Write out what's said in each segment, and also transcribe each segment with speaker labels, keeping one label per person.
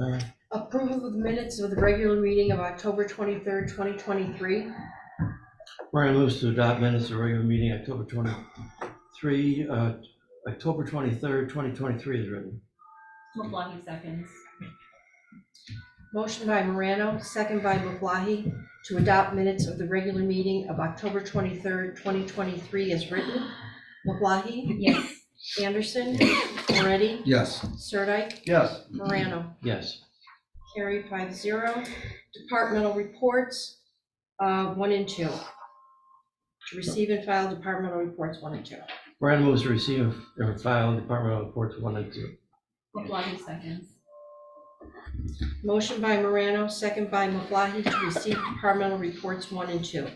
Speaker 1: Uh,
Speaker 2: Approval of the minutes of the regular meeting of October twenty-third, twenty twenty-three.
Speaker 1: Brian moves to adopt minutes of regular meeting October 23, uh, October 23rd, 2023 is written.
Speaker 3: LeBlancy seconds.
Speaker 2: Motion by Morano, second by Maflahe, to adopt minutes of the regular meeting of October twenty-third, twenty twenty-three as written. Maflahe,
Speaker 3: Yes.
Speaker 2: Anderson, Moretti,
Speaker 4: Yes.
Speaker 2: Sirdike,
Speaker 4: Yes.
Speaker 2: Morano.
Speaker 1: Yes.
Speaker 2: Carried five zero. Departmental reports, uh, one and two. To receive and file departmental reports, one and two.
Speaker 1: Brian moves to receive and file departmental reports one and two.
Speaker 3: LeBlancy seconds.
Speaker 2: Motion by Morano, second by Maflahe, to receive departmental reports one and two.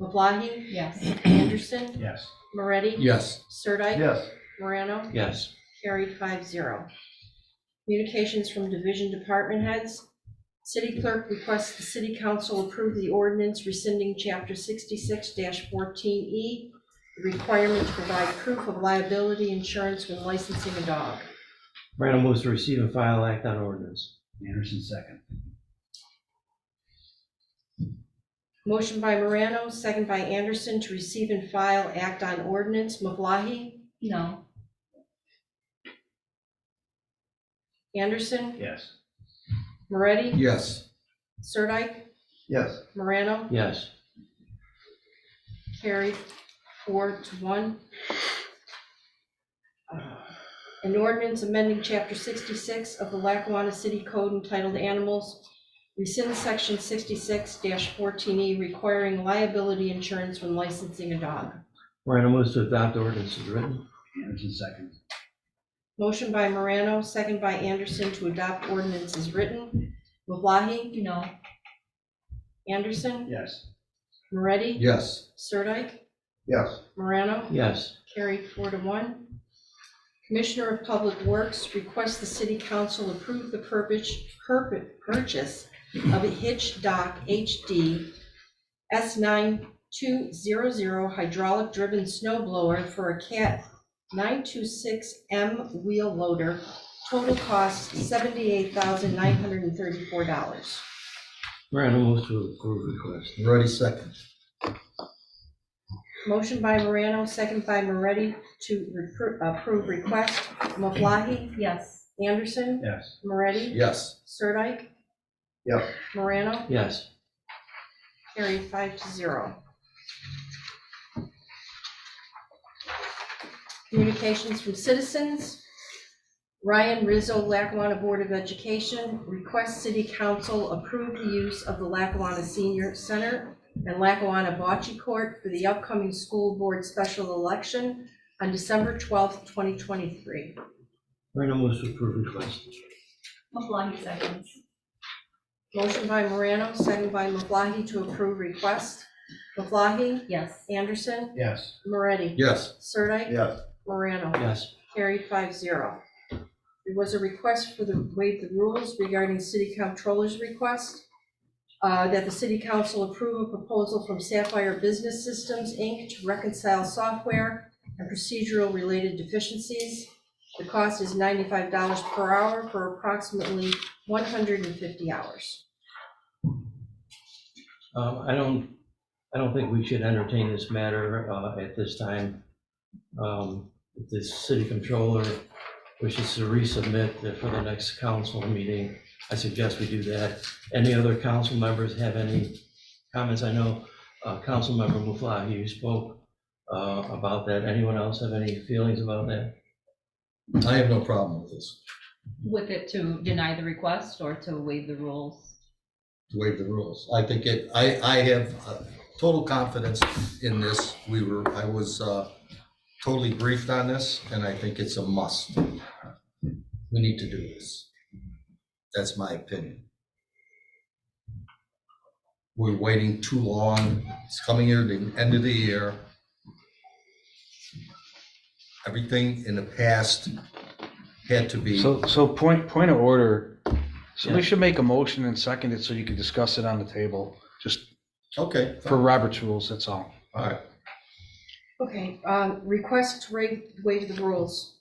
Speaker 2: Maflahe,
Speaker 3: Yes.
Speaker 2: Anderson,
Speaker 4: Yes.
Speaker 2: Moretti,
Speaker 4: Yes.
Speaker 2: Sirdike,
Speaker 4: Yes.
Speaker 2: Morano,
Speaker 1: Yes.
Speaker 2: carried five zero. Communications from division department heads. City clerk requests the city council approve the ordinance rescinding chapter sixty-six fourteen E, the requirement to provide proof of liability insurance when licensing a dog.
Speaker 1: Brian moves to receive and file act on ordinance.
Speaker 4: Anderson second.
Speaker 2: Motion by Morano, second by Anderson, to receive and file act on ordinance. Maflahe,
Speaker 3: No.
Speaker 2: Anderson,
Speaker 4: Yes.
Speaker 2: Moretti,
Speaker 4: Yes.
Speaker 2: Sirdike,
Speaker 4: Yes.
Speaker 2: Morano,
Speaker 1: Yes.
Speaker 2: carried four to one. Uh, An ordinance amending chapter sixty-six of the Lackawanna City Code entitled Animals, rescind section sixty-six fourteen E requiring liability insurance when licensing a dog.
Speaker 1: Brian moves to adopt ordinance is written.
Speaker 4: Anderson second.
Speaker 2: Motion by Morano, second by Anderson to adopt ordinance is written. LeBlancy,
Speaker 3: No.
Speaker 2: Anderson,
Speaker 4: Yes.
Speaker 2: Moretti,
Speaker 4: Yes.
Speaker 2: Sirdike,
Speaker 4: Yes.
Speaker 2: Morano.
Speaker 1: Yes.
Speaker 2: Carried four to one. Commissioner of Public Works requests the city council approve the purpose, purpo- purchase of a hitch dock HD S nine two zero zero hydraulic driven snow blower for a cat nine two six M wheel loader. Total cost seventy-eight thousand nine hundred and thirty-four dollars.
Speaker 1: Brian moves to approve request.
Speaker 4: Moretti second.
Speaker 2: Motion by Morano, second by Moretti to repro- approve request. Maflahe,
Speaker 3: Yes.
Speaker 2: Anderson,
Speaker 4: Yes.
Speaker 2: Moretti.
Speaker 4: Yes.
Speaker 2: Sirdike?
Speaker 4: Yep.
Speaker 2: Morano?
Speaker 1: Yes.
Speaker 2: Carried five to zero. Communications from citizens. Ryan Rizzo, Lackawanna Board of Education, requests City Council approve the use of the Lackawanna Senior Center and Lackawanna Bocce Court for the upcoming school board special election on December 12th, 2023.
Speaker 1: Brian moves to approve request.
Speaker 3: LeBlancy seconds.
Speaker 2: Motion by Morano, second by Maflahe to approve request. Maflahe?
Speaker 3: Yes.
Speaker 2: Anderson,
Speaker 4: Yes.
Speaker 2: Moretti,
Speaker 4: Yes.
Speaker 2: Sirdike,
Speaker 4: Yes.
Speaker 2: Morano,
Speaker 1: Yes.
Speaker 2: carried five zero. There was a request for the waive the rules regarding city comptroller's request, uh, that the city council approve a proposal from Sapphire Business Systems, Inc. to reconcile software and procedural related deficiencies. The cost is ninety-five dollars per hour for approximately one hundred and fifty hours.
Speaker 1: Um, I don't, I don't think we should entertain this matter uh, at this time. Um, If the city controller wishes to resubmit for the next council meeting, I suggest we do that. Any other council members have any comments? I know uh, Councilmember Muflahi, you spoke uh, about that. Anyone else have any feelings about that?
Speaker 4: I have no problem with this.
Speaker 3: With it to deny the request or to waive the rules?
Speaker 4: To waive the rules. I think it, I, I have uh, total confidence in this. We were, I was uh, totally briefed on this and I think it's a must. We need to do this. That's my opinion. We're waiting too long. It's coming here, the end of the year. Everything in the past had to be,
Speaker 5: So, so point, point of order,
Speaker 1: Yeah.
Speaker 5: somebody should make a motion and second it so you can discuss it on the table, just
Speaker 4: okay,
Speaker 5: for Robert's rules, that's all.
Speaker 4: all right.
Speaker 2: Okay, um, request to waive, waive the rules.